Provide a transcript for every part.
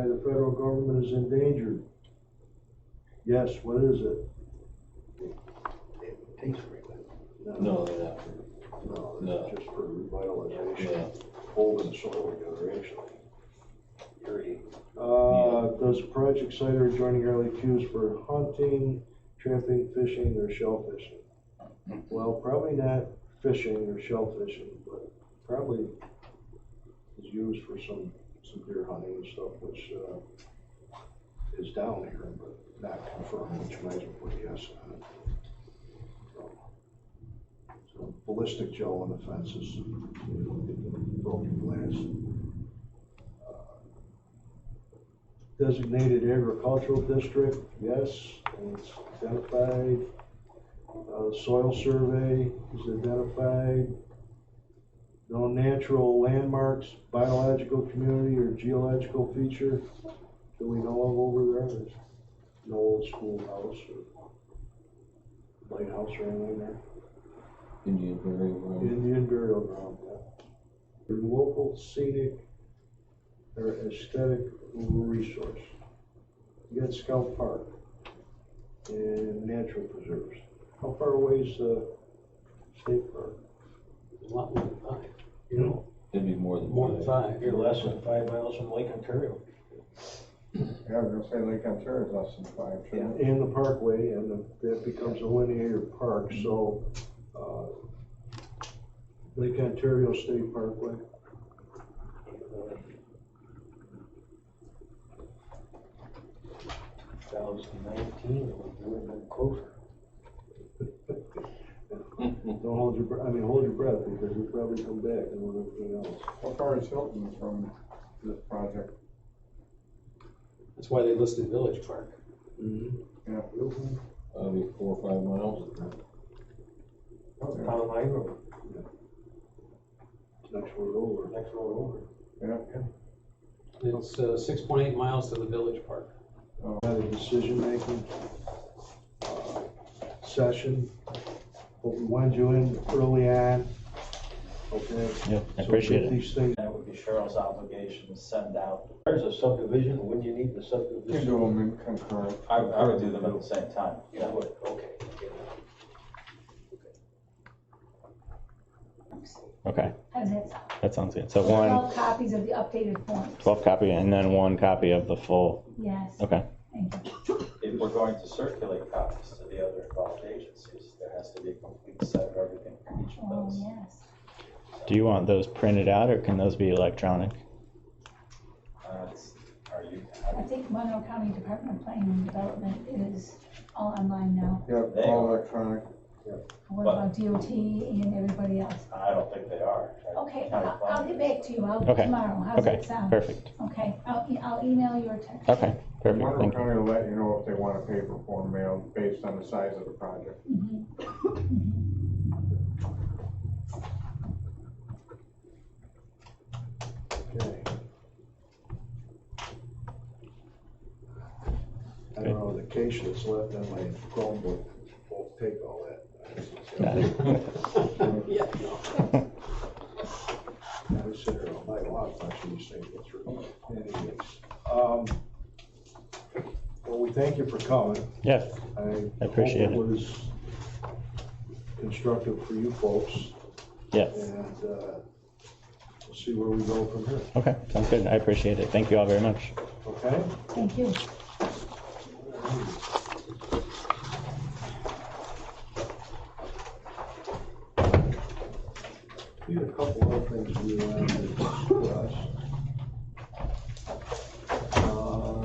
by the federal government is endangered. Yes, what is it? Taste frequent. No, they're not. No, No. it's just for revitalization, Yeah. Holding the soil together, actually. Very. Uh, does project site or adjoining area used for hunting, trapping, fishing, or shellfishing? Well, probably not fishing or shellfishing, but probably is used for some, some deer hunting and stuff, which, uh, is down here, but not confirmed, which might as well put a yes on it. So- So ballistic gel on the fences, you know, get the broken glass. Uh, designated agricultural district, yes, and it's identified. Uh, soil survey is identified. No natural landmarks, biological community or geological feature that we know of over there, there's no old schoolhouse or lighthouse or anything there. Indian very well. Indian burial ground, yeah. Your Local scenic or aesthetic resource. You got Scout Park and natural preserves. How far away is the state park? A lot more than five, you know, It'd be more than. more than five. You're less than five miles from Lake Ontario. Yeah, I was gonna say Lake Ontario is less than five, too. And the parkway, and the- that becomes a linear park, so, uh, Lake Ontario State Parkway. Thousand nineteen, it would have been closer. Don't hold your, br- I mean, hold your breath, because we probably come back and want everything else. How far is Hilton from this project? That's why they listed Village Park. That'd be four or five miles. Down the High Road, Next word over. next road over. It's, uh, six point eight miles to the Village Park. Had a decision-making uh, session, but we wanted you in early on, okay? Yeah, I So appreciate get it. These things, That would be Cheryl's obligation to send out. There's a subdivision, wouldn't you need the You can subdivision? do them in concurrent. I, I would do them at the same time, Yeah, yeah. I would, okay. Okay, How does that sound? that sounds good. So one, Twelve copies of the updated form. 12 copy, and then one copy of the full. Yes. Okay, Thank you. If we're going to circulate copies to the other involved agencies, there has to be a complete set of everything for each of Oh, those. yes. do you want those printed out, or can those be electronic? Uh, it's- Are you, I think Monroe County Department of Planning and Development is all online now. Yeah, There you all go. electronic. What about DOT and everybody else? I don't think they are. Okay, County I'll, I'll planning. get back to you. I'll, Okay. tomorrow. How's Okay, that sound? perfect. Uh, Okay, I'll, e- I'll email you or text. you. Okay, perfect. Monroe Thank you. County will let you know if they want a paper form mailed based on the size of the project. Mhm. okay. I don't know, the case that's left on my Chromebook won't take all that. Yeah. I was sitting there all night long watching these things go through. Anyways, um, well, we thank you for coming. Yeah, I hope I appreciate it. was constructive for you folks, yes. and uh, we'll see where we go from here, Okay, sounds good. I appreciate it. Thank you all very much. okay? Thank you. We had a couple of things we wanted to discuss. Uh,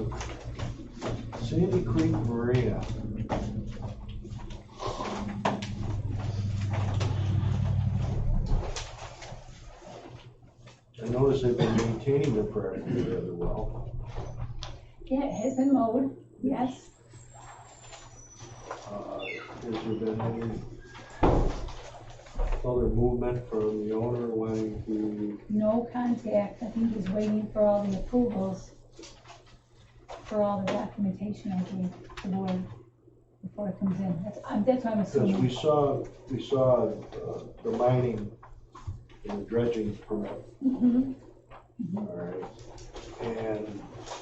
Sandy Creek Maria. I noticed they've been maintaining their property rather well. Yeah, it has been mowed. Yes. Uh, Has there been any other movement from the owner wanting to No contact. I think he's waiting for all the approvals for all the documentation I gave the board before it comes in. That's, I'm- that's what I'm Because assuming. we saw, we saw uh, the mining Mm-hmm. and the dredging permit, Mhm. all right? And